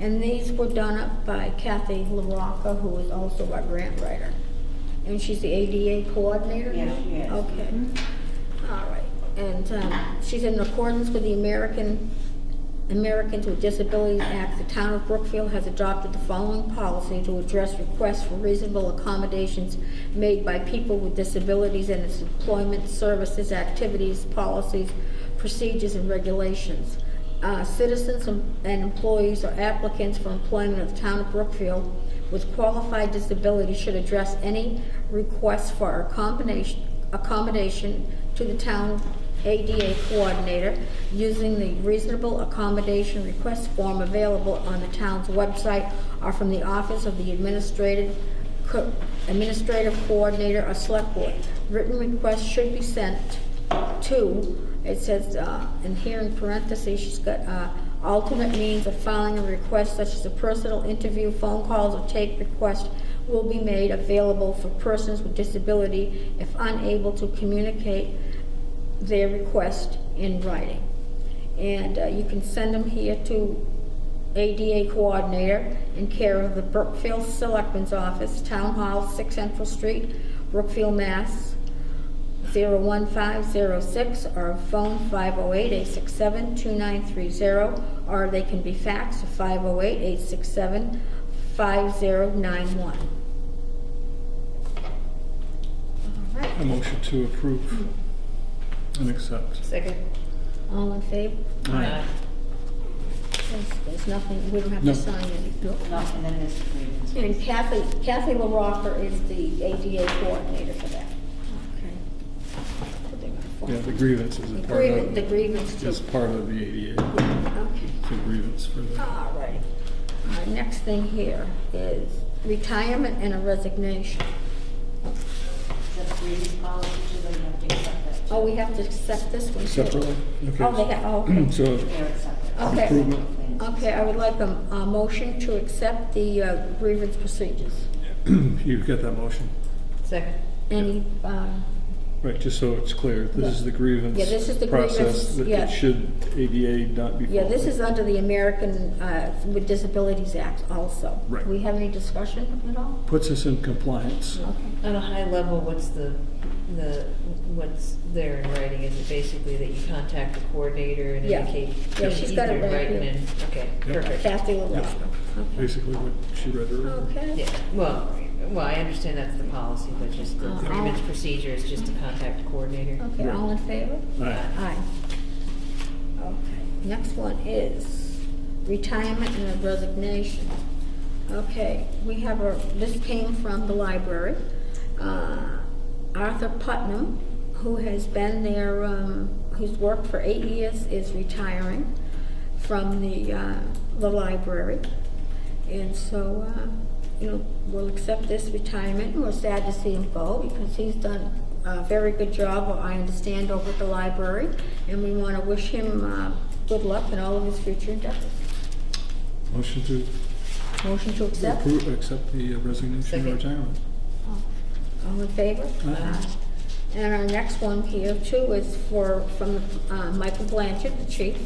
And these were done up by Kathy LaRocca, who is also our grant writer. And she's the ADA coordinator now? Yes, she is. Okay. All right. And um, she's in accordance with the American, Americans with Disabilities Act. The town of Brookfield has adopted the following policy to address requests for reasonable accommodations made by people with disabilities in its employment, services, activities, policies, procedures, and regulations. Uh, Citizens and and employees or applicants for employment of the town of Brookfield with qualified disabilities should address any requests for accommodation, accommodation to the town ADA coordinator using the reasonable accommodation request form available on the town's website or from the office of the administrative, co- administrative coordinator or select board. Written requests should be sent to, it says, uh, and here in parentheses, she's got, uh, alternate means of filing a request such as a personal interview, phone calls, or tape request will be made available for persons with disability if unable to communicate their request in writing. And uh, you can send them here to ADA Coordinator in care of the Brookfield Selectmen's Office, Town Hall, 6 Central Street, Brookfield, Mass. 01506 or phone 508-867-2930 or they can be faxed to 508-867-5091. All right, A motion to approve and accept. Second. all in favor? Aye. There's there's nothing, we don't have No. to sign anything. No, and then there's agreements. And Kathy, Kathy LaRocca is the ADA coordinator for that. Okay. So they're gonna form- Yeah, the grievance is a The part grievance- of. the grievance too. Is part of the ADA, Okay. it's a grievance for the, All right. Our next thing here is retirement and a resignation. Is that the grievance policy, too, or you have to accept that? too? Oh, we have to accept this one too? separately? Okay. Oh, they have, oh, okay. So, They're accepted. Okay. Improvement. Okay, I would like a, a motion to accept the uh, grievance procedures. you've got that motion, Second. Any, um, right, just so it's clear, this is the grievance. Yeah, this is the grievance, Process that yeah. it should, ADA not be. yeah, this followed. is under the American uh, with Disabilities Act also. Right. Do we have any discussion at all? Puts us in compliance. Okay. On a high level, what's the, the, what's there in writing? Is it basically that you contact the coordinator and Yeah. indicate? Yeah, she's got it either right in writing here. and- Okay, Yep. perfect. Kathy LaRocca. Okay. Basically what she read earlier. Okay. Yeah, well, well, I understand that's the policy, but just the Uh, grievance I'll- procedure is just to contact the coordinator. Okay, all in favor? Aye. Aye. Okay, next one is retirement and resignation. Okay, we have a, this came from the library. Uh, Arthur Putnam, who has been there, um, who's worked for eight years, is retiring from the, uh, the library. And so, uh, you know, we'll accept this retirement, and we're sad to see him go, because he's done a very good job, I understand, over at the library, and we want to wish him uh, good luck in all of his future endeavors. Motion to Motion to accept? approve, accept the uh, resignation Second. or retirement. Oh. All in favor? Aye. And our next one here too is for, from uh, Michael Blanchard, the chief,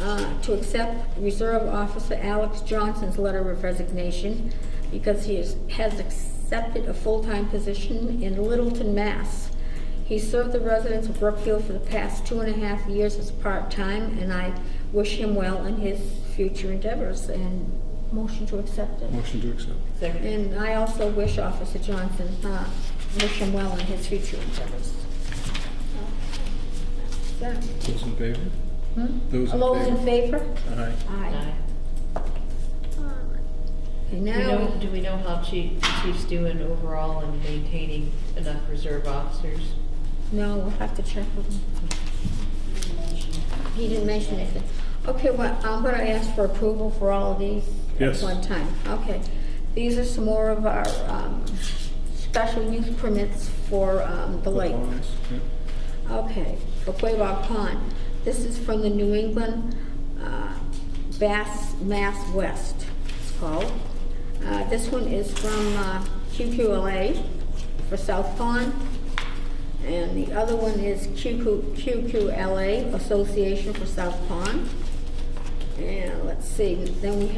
uh, to accept Reserve Officer Alex Johnson's letter of resignation because he is- has accepted a full-time position in Littleton, Mass. He served the residents of Brookfield for the past two and a half years as part-time, and I wish him well in his future endeavors, and motion to accept it. Motion to accept. Second. And I also wish Officer Johnson, uh, wish him well in his future endeavors. So, Those in favor? hmm? Those in All those in favor? Aye. Aye. Aye. Okay, Do we now, know, do we know how chief, chief's doing overall in maintaining enough reserve officers? no, we'll have to check with him. He didn't mention anything. Okay, well, I'm gonna ask for approval for all of these at Yes. one time. Okay. These are some more of our, um, special use permits for, um, the lake. Opposed? Yep. Okay, for Quabog Pond. This is from the New England uh, Bass Mass West, it's called. Uh, This one is from uh, QQLA for South Pond. And the other one is QQ QQLA Association for South Pond. And let's see, then we